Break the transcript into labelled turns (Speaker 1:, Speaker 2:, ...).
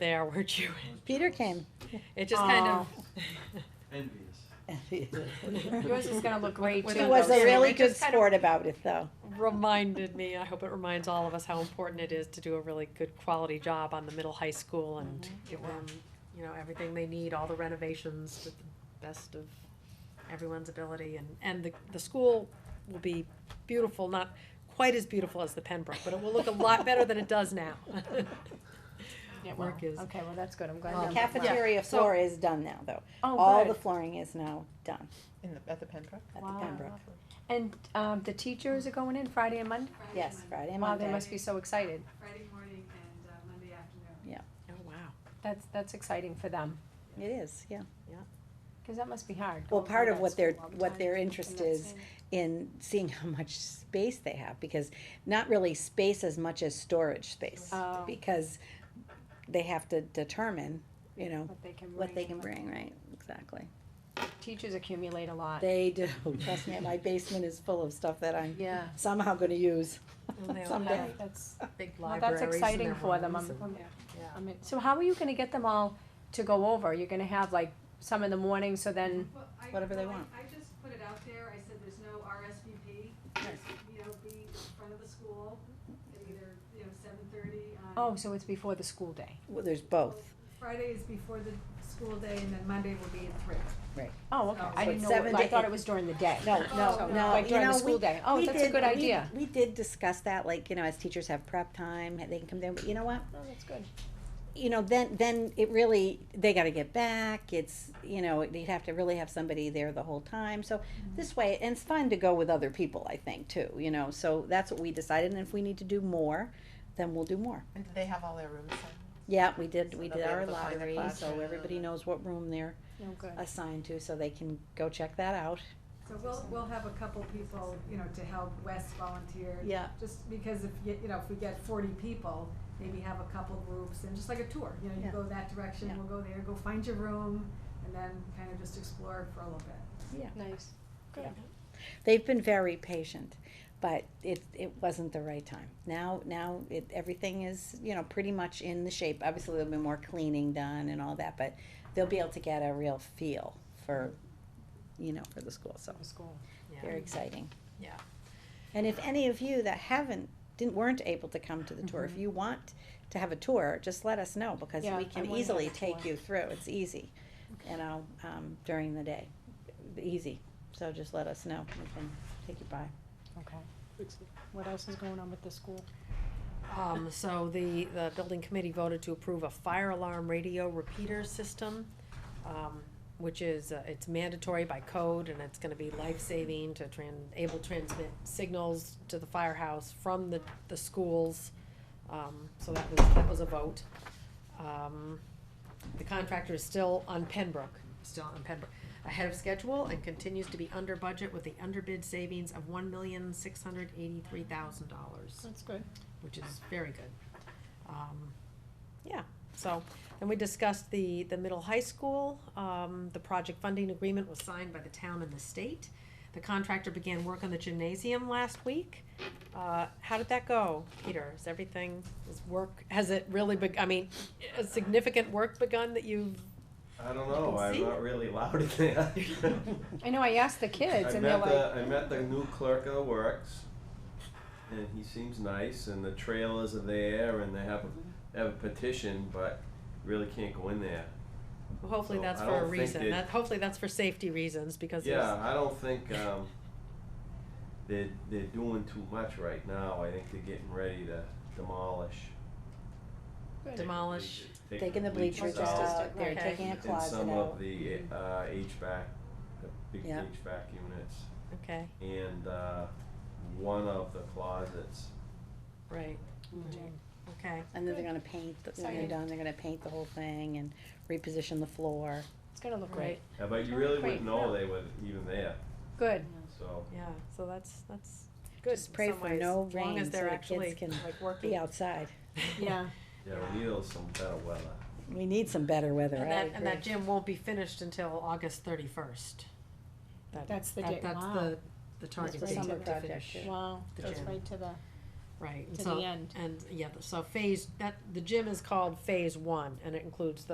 Speaker 1: there were Jewish.
Speaker 2: Peter came.
Speaker 1: It just kind of.
Speaker 3: Envious.
Speaker 4: Yours is gonna look great
Speaker 1: With
Speaker 4: too.
Speaker 2: He was
Speaker 4: though,
Speaker 2: a
Speaker 4: Sam.
Speaker 2: really
Speaker 4: It
Speaker 2: good
Speaker 4: just kind of-
Speaker 2: sport about it, though.
Speaker 1: reminded me, I hope it reminds all of us how important it is to do a really good quality job on the middle high school and
Speaker 4: Mm-hmm.
Speaker 1: give them, you know, everything they need, all the renovations to the best of everyone's ability and, and the, the school will be beautiful, not quite as beautiful as the Pembroke, but it will look a lot better than it does now.
Speaker 4: Oh, Yeah, well,
Speaker 1: Work is,
Speaker 4: Okay, well, that's good, I'm glad.
Speaker 1: Um,
Speaker 4: you-
Speaker 2: Cafeteria
Speaker 1: So-
Speaker 2: floor is done now, though.
Speaker 4: Oh,
Speaker 2: All the
Speaker 4: good.
Speaker 2: flooring is now done
Speaker 5: In the, at the Pembroke?
Speaker 2: at the
Speaker 4: Wow.
Speaker 2: Pembroke.
Speaker 4: And, um, the teachers are going in Friday and Monday?
Speaker 2: Yes, Friday and
Speaker 4: Wow, they
Speaker 2: Monday.
Speaker 4: must be so excited.
Speaker 6: Friday morning and uh, Monday afternoon.
Speaker 1: oh wow,
Speaker 4: That's, that's exciting for them,
Speaker 2: It is, yeah.
Speaker 4: cause that must be hard.
Speaker 2: Well,
Speaker 4: going through
Speaker 2: part of
Speaker 4: that
Speaker 2: what their,
Speaker 4: school all the
Speaker 2: what
Speaker 4: time
Speaker 2: their
Speaker 4: and
Speaker 2: interest
Speaker 4: not
Speaker 2: is
Speaker 4: seeing it.
Speaker 2: in seeing how much space they have, because not really space as much as storage space.
Speaker 4: Oh.
Speaker 2: Because they have to determine, you know,
Speaker 4: What they can bring.
Speaker 2: what they can
Speaker 4: and
Speaker 2: bring, right? Exactly.
Speaker 4: Teachers accumulate a lot.
Speaker 2: They do, trust me, my basement is full of stuff that I'm
Speaker 4: Yeah.
Speaker 2: somehow gonna use.
Speaker 1: And they'll
Speaker 2: Someday.
Speaker 1: have
Speaker 4: That's,
Speaker 1: big
Speaker 4: well,
Speaker 1: libraries
Speaker 4: that's
Speaker 1: in
Speaker 4: exciting
Speaker 1: their
Speaker 4: for them,
Speaker 1: homes
Speaker 4: I'm,
Speaker 1: and-
Speaker 4: I'm-
Speaker 1: yeah.
Speaker 4: I mean, so how are you gonna get them all to go over? You're gonna have like some in the morning, so then,
Speaker 6: Well, I-
Speaker 2: Mm-hmm. Whatever they
Speaker 6: well, I-
Speaker 2: want.
Speaker 6: I just put it out there, I said there's no RSVP, just, you know, be in front of the school, at either, you know, seven thirty
Speaker 4: oh,
Speaker 6: on.
Speaker 4: so it's before the school day.
Speaker 2: Well, there's both.
Speaker 6: Friday is before the school day and then Monday will be at three.
Speaker 4: Oh, okay,
Speaker 6: So
Speaker 4: I didn't
Speaker 2: it's
Speaker 4: know,
Speaker 2: seven
Speaker 4: what- I
Speaker 2: to
Speaker 4: thought
Speaker 2: eight.
Speaker 4: it was during the day.
Speaker 2: No,
Speaker 4: Oh, So,
Speaker 2: no, no,
Speaker 4: Like
Speaker 2: you
Speaker 4: during the
Speaker 2: know,
Speaker 4: school
Speaker 2: we,
Speaker 4: day. Oh,
Speaker 2: we
Speaker 4: that's a
Speaker 2: did-
Speaker 4: good
Speaker 2: we-
Speaker 4: idea.
Speaker 2: We did discuss that, like, you know, as teachers have prep time, and they can come down, but you know what?
Speaker 4: Oh, that's good.
Speaker 2: you know, then then it really they got to get back. It's you know you'd have to really have somebody there the whole time. So
Speaker 4: Mm-hmm.
Speaker 2: this way, and it's fun to go with other people. I think too. You know, so that's what we decided. And if we need to do more, then we'll do more.
Speaker 5: And do they have all their rooms? then?
Speaker 2: Yeah, we did.
Speaker 5: So
Speaker 2: we
Speaker 5: they'll
Speaker 2: did
Speaker 5: be
Speaker 2: our
Speaker 5: able to find their
Speaker 2: lottery, so
Speaker 5: classroom.
Speaker 2: everybody knows what room they're
Speaker 4: No, good.
Speaker 2: assigned to, so they can go check that out.
Speaker 6: So we'll, we'll have a couple people, you know, to help Wes volunteer.
Speaker 2: Yeah.
Speaker 6: Just because if, you you know, if we get forty people, maybe have a couple groups and just like a tour, you know,
Speaker 2: Yeah.
Speaker 6: you go that direction,
Speaker 2: Yeah.
Speaker 6: we'll go there, go find your room, and then kind of just explore for a little bit.
Speaker 4: Nice. Good.
Speaker 2: They've been very patient, but it it wasn't the right time. Now now it everything is you know pretty much in the shape. Obviously there'll be more cleaning done and all that, but they'll be able to get a real feel for, you know, for the school. So
Speaker 4: For school.
Speaker 1: Yeah.
Speaker 2: very exciting.
Speaker 1: Yeah.
Speaker 2: And if any of you that haven't didn't weren't able to come to the tour, if you want to have a tour, just let us know because
Speaker 4: Mm-hmm. Yeah,
Speaker 2: we
Speaker 4: I
Speaker 2: can
Speaker 4: wanna have
Speaker 2: easily
Speaker 4: a
Speaker 2: take
Speaker 4: tour.
Speaker 2: you through. It's easy, you know, um, during the day, easy. So just let us know. We can take you by.
Speaker 4: Okay. What else is going on with the school?
Speaker 1: Um, so the, the building committee voted to approve a fire alarm radio repeater system, um, which is, uh, it's mandatory by code and it's gonna be life-saving to tran, able to transmit signals to the firehouse from the, the schools. Um, so that was, that was a vote. Um, the contractor is still on Pembroke, still on Pembroke, ahead of schedule and continues to be under budget with the underbid savings of one million, six hundred eighty-three thousand dollars
Speaker 4: That's good.
Speaker 1: which is very good. Um, yeah, so, and we discussed the, the middle high school, um, the project funding agreement was signed by the town and the state. The contractor began work on the gymnasium last week. Uh, how did that go, Peter? Is everything, is work, has it really beg, I mean, has significant work begun that you've,
Speaker 3: I don't
Speaker 1: You
Speaker 3: know,
Speaker 1: can see
Speaker 3: I'm
Speaker 1: it.
Speaker 3: not really loud at that.
Speaker 4: I know, I asked the
Speaker 3: I
Speaker 4: kids and they're
Speaker 3: met
Speaker 4: like,
Speaker 3: the, I met the new clerk of the works, and he seems nice, and the trailers are there, and they have, they have a petition, but really can't go in there.
Speaker 1: hopefully
Speaker 3: So,
Speaker 1: that's
Speaker 3: I
Speaker 1: for a
Speaker 3: don't think
Speaker 1: reason,
Speaker 3: they-
Speaker 1: that, hopefully that's for safety reasons, because there's.
Speaker 3: Yeah, I don't think, um, they're, they're doing too much right now, I think they're getting ready to demolish.
Speaker 4: Good.
Speaker 3: Take the
Speaker 1: Demolish.
Speaker 3: bleachers- take
Speaker 2: Taking the bleachers
Speaker 4: bleachers out,
Speaker 2: out, they're
Speaker 1: okay.
Speaker 2: taking a
Speaker 3: And
Speaker 2: closet
Speaker 3: some
Speaker 2: out.
Speaker 3: of the, uh, HVAC, the big
Speaker 2: Yeah.
Speaker 3: HVAC units,
Speaker 1: Okay,
Speaker 3: and, uh, one of the closets.
Speaker 1: right, Mm-hmm. okay,
Speaker 2: And then they're gonna paint, the- when they're
Speaker 4: Exciting.
Speaker 2: done, they're gonna paint the whole thing and reposition the floor.
Speaker 4: it's gonna look
Speaker 1: right,
Speaker 4: great.
Speaker 3: Yeah, but you
Speaker 4: Oh,
Speaker 3: really
Speaker 4: great.
Speaker 3: wouldn't know they were even there,
Speaker 4: Good.
Speaker 3: so.
Speaker 1: yeah, so that's, that's good in
Speaker 2: Just pray
Speaker 1: some
Speaker 2: for
Speaker 1: ways,
Speaker 2: no
Speaker 1: as long
Speaker 2: rain
Speaker 1: as
Speaker 2: so
Speaker 1: they're
Speaker 2: the
Speaker 1: actually,
Speaker 2: kids can
Speaker 1: like, working.
Speaker 2: Be outside.
Speaker 4: Yeah.
Speaker 3: Yeah, we need some better weather.
Speaker 2: We need some better weather,
Speaker 1: And
Speaker 2: I
Speaker 1: that, and that
Speaker 2: agree.
Speaker 1: gym won't be finished until August thirty-first.
Speaker 4: That's the date.
Speaker 1: That's
Speaker 4: Wow.
Speaker 1: the, the target
Speaker 2: the
Speaker 1: date
Speaker 2: summer
Speaker 1: to
Speaker 2: project,
Speaker 1: finish
Speaker 2: yeah.
Speaker 4: Wow,
Speaker 1: the
Speaker 4: that's
Speaker 1: gym.
Speaker 4: right to the
Speaker 1: right, and
Speaker 4: to the
Speaker 1: so,
Speaker 4: end.
Speaker 1: and, yeah, so phase, that, the gym is called phase one, and it includes the